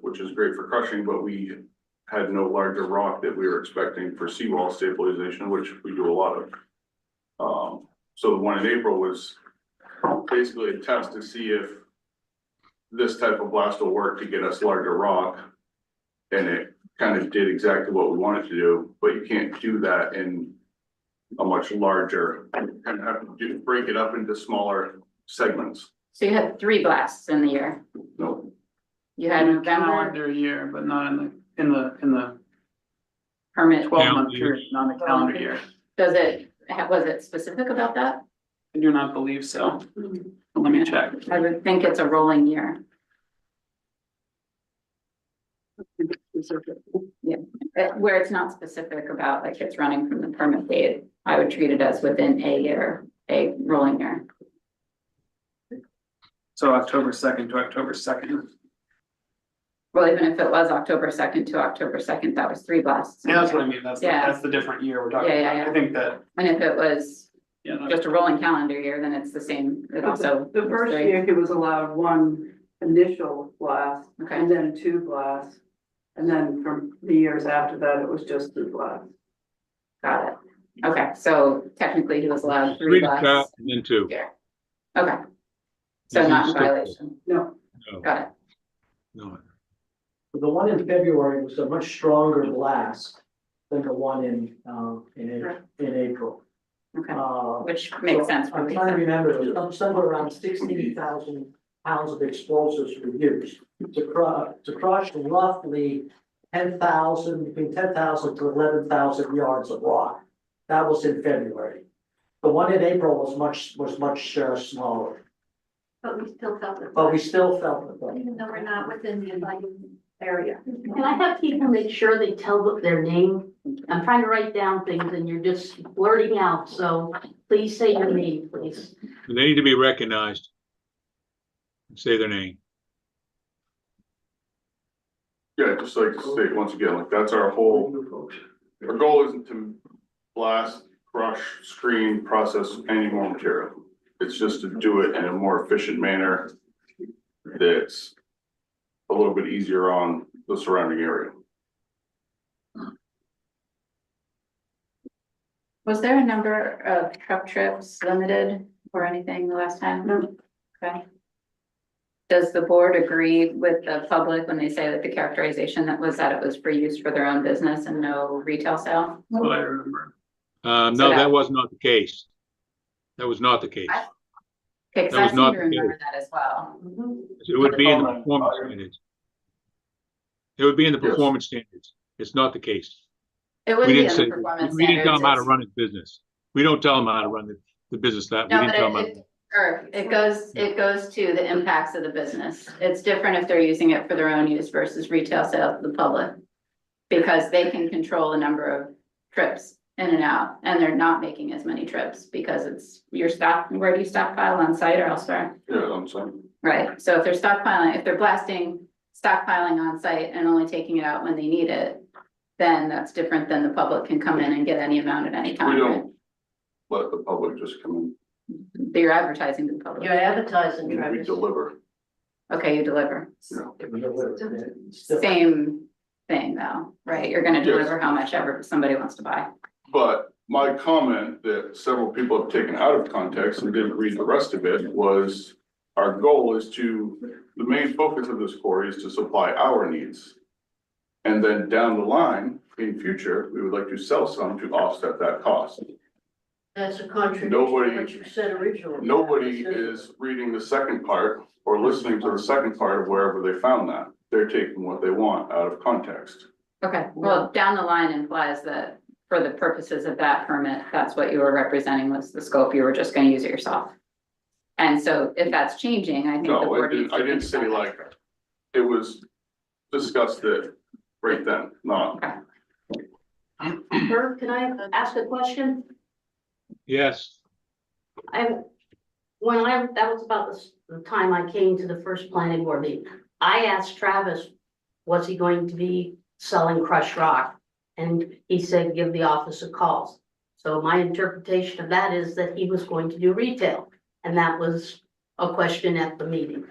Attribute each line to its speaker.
Speaker 1: which is great for crushing, but we had no larger rock that we were expecting for seawall stabilization, which we do a lot of. Um, so the one in April was basically a test to see if this type of blast will work to get us larger rock. And it kind of did exactly what we wanted to do, but you can't do that in a much larger, you kind of have to do- break it up into smaller segments.
Speaker 2: So you had three blasts in the year.
Speaker 1: No,
Speaker 2: You had November
Speaker 3: Calendar year, but not in the, in the, in the
Speaker 2: permit.
Speaker 3: twelve month
Speaker 4: Calendar.
Speaker 3: period, not the calendar year.
Speaker 2: Does it, ha- was it specific about that?
Speaker 3: I do not believe so. But Let me check.
Speaker 2: I would think it's a rolling year. Yeah, uh, where it's not specific about like it's running from the permit date, I would treat it as within a year, a rolling year.
Speaker 3: So October second to October second.
Speaker 2: Well, even if it was October second to October second, that was three blasts.
Speaker 3: Yeah, that's what I mean. That's, the-
Speaker 2: Yeah.
Speaker 3: that's the different year we're talking
Speaker 2: Yeah, yeah,
Speaker 3: about.
Speaker 2: yeah.
Speaker 3: I think that,
Speaker 2: And if it was
Speaker 3: you know,
Speaker 2: just a rolling calendar year, then it's the same, it also.
Speaker 5: The
Speaker 2: was
Speaker 5: first
Speaker 2: three.
Speaker 5: year, he was allowed one initial blast
Speaker 2: Okay,
Speaker 5: and then two blasts. And then from the years after that, it was just two blasts.
Speaker 2: got it. Okay, so technically he was allowed three
Speaker 4: Three to top
Speaker 2: blasts.
Speaker 4: and then two.
Speaker 2: Okay, so
Speaker 4: This
Speaker 2: not in
Speaker 4: is the-
Speaker 2: violation.
Speaker 5: No,
Speaker 4: No,
Speaker 2: Got it.
Speaker 4: no.
Speaker 6: But The one in February was a much stronger blast than the one in, um, in, A- in April.
Speaker 2: Okay,
Speaker 6: Uh,
Speaker 2: which makes sense for
Speaker 6: I'm
Speaker 2: me.
Speaker 6: trying to remember, it was some- somewhere around sixteen thousand pounds of explosives were used to crush, to crush roughly ten thousand, between ten thousand to eleven thousand yards of rock. That was in February. The one in April was much, was much uh, smaller,
Speaker 7: But we still felt it,
Speaker 6: but we still felt the thing.
Speaker 7: even though we're not within the inviting area. Can I have people make sure they tell their name? I'm trying to write down things and you're just blurting out, so please say your name, please.
Speaker 4: They need to be recognized. Say their name.
Speaker 1: yeah, I'd just like to state once again, like that's our whole, our goal isn't to blast, crush, screen, process any more material. It's just to do it in a more efficient manner that's a little bit easier on the surrounding area.
Speaker 2: Was there a number of truck trips limited or anything the last time?
Speaker 5: No.
Speaker 2: Okay. Does the board agree with the public when they say that the characterization that was that it was for use for their own business and no retail sale?
Speaker 3: that's what I remember.
Speaker 4: Um,
Speaker 2: So
Speaker 4: no,
Speaker 2: that-
Speaker 4: that was not the case. That was not the case.
Speaker 2: I- Okay, 'cause
Speaker 4: That
Speaker 2: I
Speaker 4: was
Speaker 2: seem
Speaker 4: not
Speaker 2: to
Speaker 4: the case.
Speaker 2: remember that as well.
Speaker 7: Mhm.
Speaker 4: It would be in the
Speaker 3: Oh, my
Speaker 4: performance
Speaker 3: God.
Speaker 4: standards. It would be in the
Speaker 1: Yes.
Speaker 4: performance standards. It's not the case.
Speaker 2: It would
Speaker 4: We
Speaker 2: be
Speaker 4: didn't
Speaker 2: in
Speaker 4: say,
Speaker 2: the performance
Speaker 4: we didn't tell them how to
Speaker 2: standards.
Speaker 4: run his business. We don't tell them how to run the, the business that, we
Speaker 2: No,
Speaker 4: didn't
Speaker 2: but
Speaker 4: tell
Speaker 2: it-
Speaker 4: them.
Speaker 2: Sure, it goes, it goes to the impacts of the business. It's different if they're using it for their own use versus retail sale to the public. Because they can control the number of trips in and out, and they're not making as many trips because it's your stop, where do you stockpile on site or elsewhere?
Speaker 1: Yeah, I'm saying.
Speaker 2: Right, so if they're stockpiling, if they're blasting, stockpiling on site and only taking it out when they need it. Then that's different than the public can come in and get any amount at any time.
Speaker 1: We don't let the public just come
Speaker 2: But You're advertising to the public.
Speaker 7: You're advertising,
Speaker 1: in. We
Speaker 7: Travis.
Speaker 1: deliver.
Speaker 2: Okay, you deliver.
Speaker 6: Still-
Speaker 2: Same thing though, right? You're gonna
Speaker 1: Yes.
Speaker 2: deliver how much ever somebody wants to buy.
Speaker 1: But my comment that several people have taken out of context and didn't read the rest of it was our goal is to, the main focus of this quarry is to supply our needs. And then down the line, in future, we would like to sell some to offset that cost.
Speaker 7: That's a contradiction to
Speaker 1: Nobody-
Speaker 7: what you said originally.
Speaker 1: Nobody is reading the second part or listening to the second part of wherever they found that. They're taking what they want out of context.
Speaker 2: Okay, well, down the line implies that for the purposes of that permit, that's what you were representing was the scope. You were just gonna use it yourself. And so if that's changing, I think the
Speaker 1: No, I
Speaker 2: board needs
Speaker 1: didn't,
Speaker 2: to.
Speaker 1: I didn't
Speaker 2: think
Speaker 1: say
Speaker 2: about
Speaker 1: like, it was discussed that right then, not
Speaker 7: Herb, can I ask a question?
Speaker 4: Yes,
Speaker 7: I, when I, that was about the s- the time I came to the first planning board meeting, I asked Travis, was he going to be selling crushed rock? And he said, give the office a call. So my interpretation of that is that he was going to do retail, and that was a question at the meeting.